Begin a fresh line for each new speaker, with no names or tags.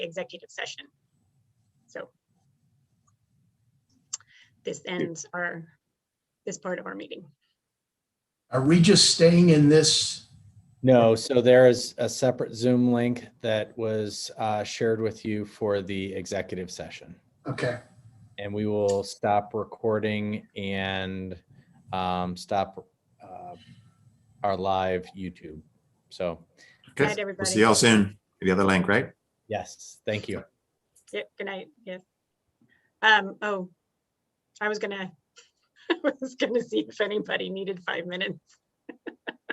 executive session. So this ends our, this part of our meeting.
Are we just staying in this?
No, so there is a separate Zoom link that was uh, shared with you for the executive session.
Okay,
And we will stop recording and um, stop uh, our live YouTube. So,
Good
Okay.
night, everybody.
We'll see y'all soon. The other link, right?
yes, thank you.
Yeah, good night, yeah. Um, oh, I was gonna, I was gonna see if anybody needed five minutes.